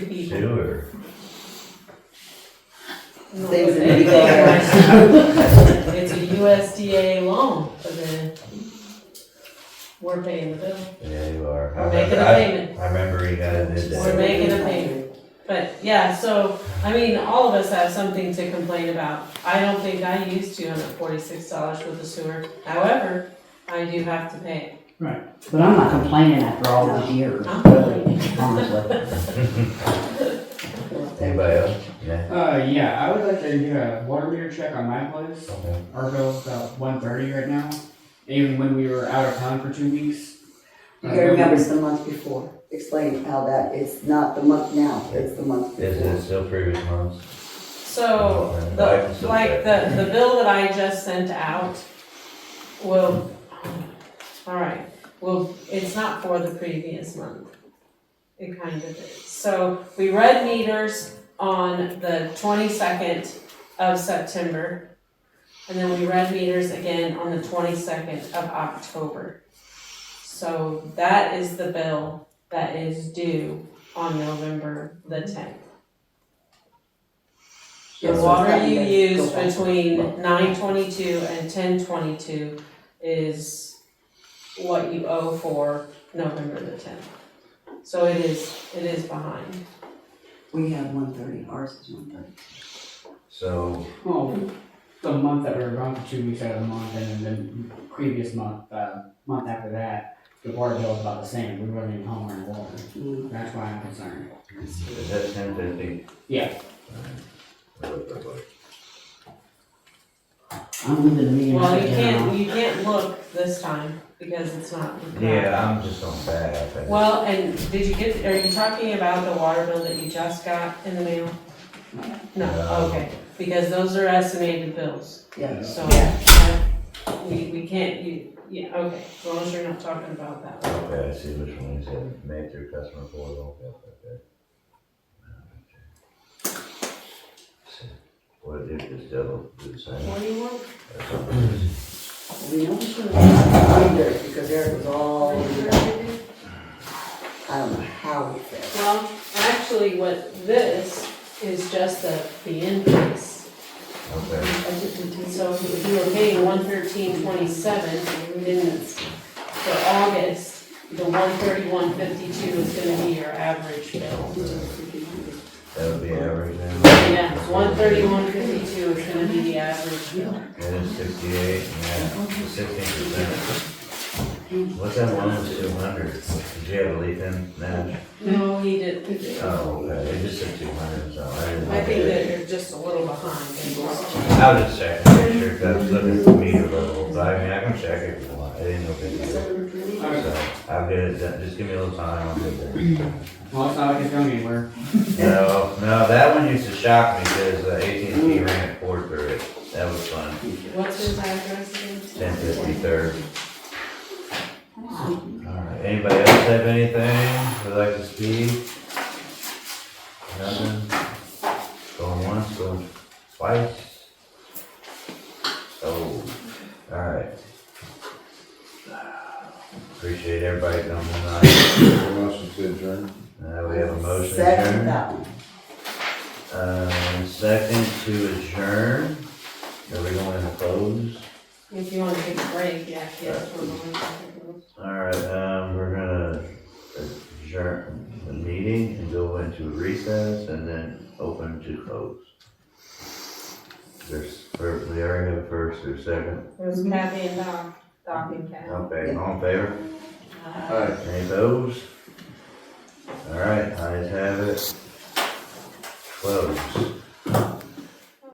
too, or? Things that we go for. It's a USDA loan, but then we're paying the bill. Yeah, you are. I We're making a remember- I- payment. I remember you guys did that. We're making a payment. But yeah, so, I mean, all of us have something to complain about. I don't think I used two hundred forty-six dollars for the sewer. However, I do have to pay But I'm not complaining after all those years, I'm really, honestly. Anybody else? Yeah. Uh, yeah, I would like to do a water meter check on my place. Okay. Our bill's about one thirty right now, even when we were out of town for two weeks. You uh, gotta remember it's the month before. Explain how that, it's not the month now, it's the month Is before. it still previous months? it. So, Oh, The, like, the, the bill that I just sent out will, alright, well, it's not for the previous month. It kind of is. So we read meters on the twenty-second of September. And then we read meters again on the twenty-second of October. So that is the bill that is due on November the tenth. The Yes, it's water gotten you better. use Go back. between nine twenty-two and ten twenty-two is what you owe for November the tenth. So it is, it is behind. We have one thirty, ours is one thirty. So, Well, oh, the month that we were gone for two weeks out of the month, and then the previous month, uh, month after that, the water bill was about the same, we weren't even home on water. Mm. That's why I'm concerned. is that ten fifty? Yeah. I'm leaving the meeting Well, right you now. can't, you can't look this time because it's not. Yeah, I'm just on bad. I think. Well, and did you get, are you talking about the water bill that you just got in the mail? No, No. okay, because those are estimated bills, Yeah. so Yeah. uh, we, we can't, you, yeah, okay, as long as you're not talking about that. Okay, I see which one is it, made through customer portal, okay, okay. What if this devil do the same? What do you want? That's all it is. We know we should have done it because Eric was all, I don't know how we fixed. it. Well, actually, what this is just the, the invoice. Okay, So if you were paying one thirteen twenty-seven in, for August, the one thirty-one fifty-two is gonna be your average bill. that would be average then? Yeah, one thirty-one fifty-two is gonna be the average bill. That is sixty-eight, yeah, sixteen percent. What's that one that's two hundred? Did you have a leaf in that? No, he did, Oh, okay, it just said two hundred, so I didn't. I look think at it. that you're just a little behind. I was just checking, make sure if I was looking at the meter level, but I mean, I can check it if you want, I didn't know if it. So, I'll get it done, just give me a little time, I'll get it done. Well, it's not like it's going anywhere. No, no, that one used to shock me, cause uh, AT&T ran a cord through it, that was fun, What's his address again? ten fifty-third. Alright, anybody else have anything would like to speak? Nothing? Going once, going twice? So, alright. Appreciate everybody coming tonight, Motion to adjourn. uh, we have a motion Second adjourned. that one. Um, second to adjourn. Are we going to close? If you wanna take a break, yeah, yeah. we're going to- Alright, um, we're gonna adjourn the meeting and go into recess and then open to close. There's, first- we already have a first or second. It was Kathy and Doc, Doc and Kathy. Okay, all in favor? Uh, Aye. Any opposed? Alright, ayes have it. Close.